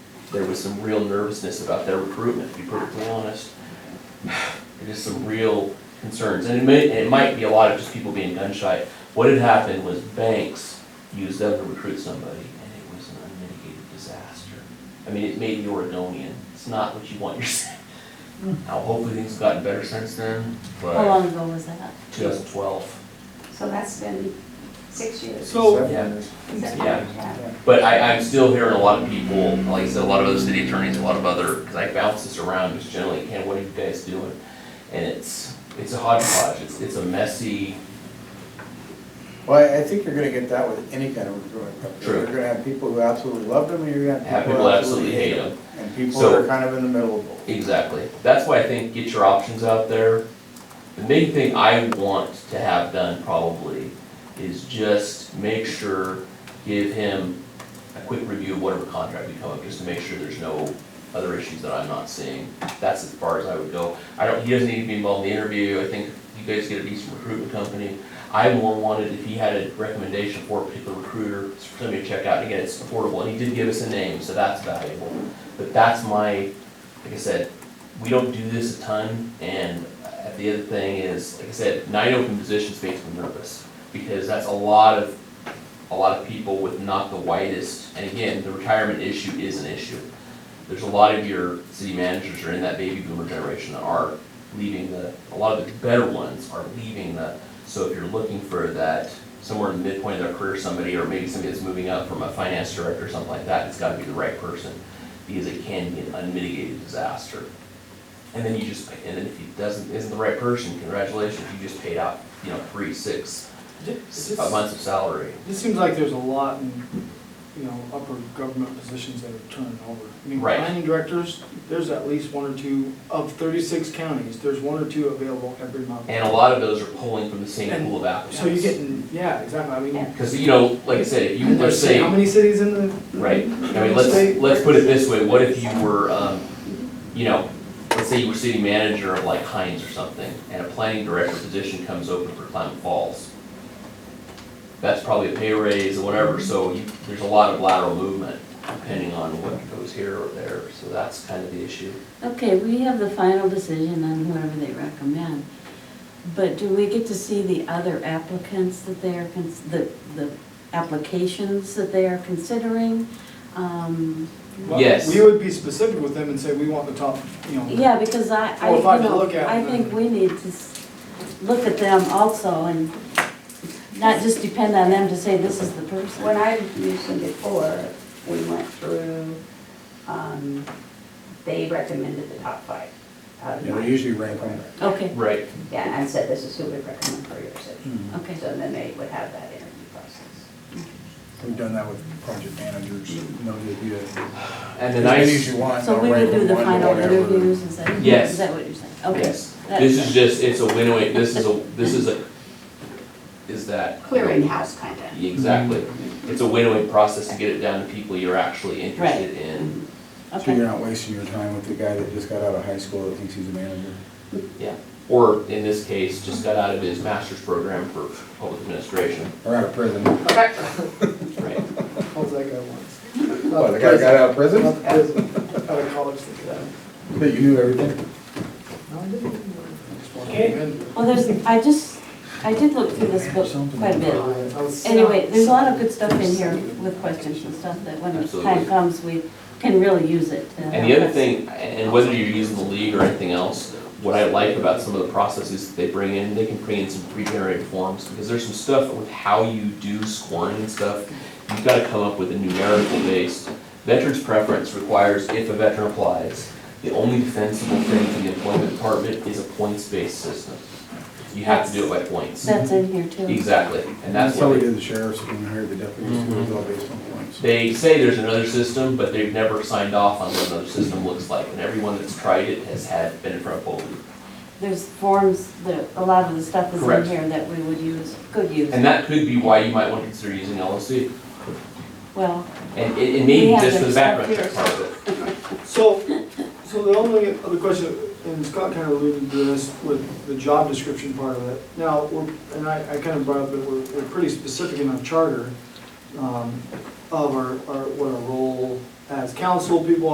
there was some real nervousness about their recruitment, to be perfectly honest. Just some real concerns, and it may, and it might be a lot of just people being gun shy. What had happened was banks used them to recruit somebody, and it was an unmitigated disaster. I mean, it made the Oregonian, it's not what you want your, now hopefully things have gotten better since then, How but long ago was that? two thousand twelve. So that's been six years. So, Yeah. Is that- Yeah. But I, I'm still hearing a lot of people, like I said, a lot of other city attorneys, a lot of other, because I bounce this around just generally, Ken, what are you guys doing? And it's, it's a hodgepodge, it's, it's a messy, Well, I- I think you're gonna get that with any kind of recruitment company. True. You're gonna have people who absolutely love them, and you're gonna Have have people people who absolutely absolutely hate them. hate them. And people So- that are kind of in the middle of both. exactly. That's why I think get your options out there. The main thing I want to have done probably is just make sure, give him a quick review of whatever contract we come up, just to make sure there's no other issues that I'm not seeing. That's as far as I would go. I don't, he doesn't need to be involved in the interview, I think you guys get a decent recruitment company. I more wanted if he had a recommendation for a particular recruiter, for somebody to check out, and again, it's affordable, and he did give us a name, so that's valuable. But that's my, like I said, we don't do this a ton, and uh, the other thing is, like I said, nine open positions makes me nervous, because that's a lot of, a lot of people with not the widest, and again, the retirement issue is an issue. There's a lot of your city managers are in that baby boomer generation that are leaving the, a lot of the better ones are leaving the, so if you're looking for that, somewhere in the midpoint of their career, somebody, or maybe somebody that's moving up from a finance director or something like that, it's gotta be the right person, because it can be an unmitigated disaster. And then you just, and then if he doesn't, isn't the right person, congratulations, you just paid out, you know, three, six, this, five months of salary. this seems like there's a lot in, you know, upper government positions that are turning over. I mean, Right. Planning directors, there's at least one or two, of thirty-six counties, there's one or two available every month. And a lot of those are pulling from the same pool of So you're applicants. getting, yeah, exactly, I mean. Because, you know, like I said, if you, let's there's say, How many cities in the? right, I mean, let's, let's put it this way, what if you were, um, you know, let's say you were city manager of like Heinz or something, and a planning director position comes open for Climate Falls. That's probably a pay raise or whatever, so you, there's a lot of lateral movement depending on what goes here or there, so that's kind of the issue. Okay, we have the final decision on whoever they recommend. But do we get to see the other applicants that they are, cons- the, the applications that they are considering? Um, Well, Yes. We would be specific with them and say, we want the top, you know. Yeah, because I, I, Well, you if I could know, look at I them. think we need to s- look at them also and not just depend on them to say this is the When person. I mentioned before, we went through, um, they recommended the top five out of You know, nine. usually rank them. Okay, Right. Yeah, and said this is who we recommend for your city. okay. So then they would have that interview process. We've done that with project managers, you know, they do it. And As then I. many as you want. So they'll we would rank do them the one to final whatever. interviews, is that, Yes. is that what you're saying? Okay. Yes, That- this is just, it's a win-win, this is a, this is a, is that? Clearinghouse kind of. Exactly, it's a win-win process to get it down to people you're actually interested in, So Okay, you're not wasting your time with the guy that just got out of high school that thinks he's a manager. yeah. Or in this case, just got out of his master's program for public administration, Or out of prison. right? How's that guy once? What, the guy got out of prison? Not prison, out of college, think of that. That you knew everything? No, I didn't. Just wanted to Okay. amend. well, there's, I just, I did look through this book quite a bit. I was- Anyway, there's a lot of good stuff in here with questions and stuff that when the Absolutely. time comes, we can really use it. to And the help other us. thing, and whether you're using the league or anything else, what I like about some of the processes that they bring in, they can bring in some pre-generated forms, because there's some stuff with how you do scoring and stuff. You've gotta come up with a numerical base. Veterans preference requires if a veteran applies, the only defensible thing in the employment department is a points-based system. You have to do it by points. That's in here too. Exactly, and that's how what Mm-hmm. we they, did the sheriffs when we hired the deputies, it was all based on points. they say there's another system, but they've never signed off on what another system looks like. And everyone that's tried it has had, been in front of both. There's forms, that a lot of the stuff is in Correct. here that we would use, could use. And that could be why you might want to consider using LLC. Well, And it, it We may be have just to for the background check accept part of it. So, so the only other question, and Scott kind of alluded to this with the job description part of it. Now, we're, and I, I kind of brought up that we're, we're pretty specific in our charter, um, of our, our, what our role as council people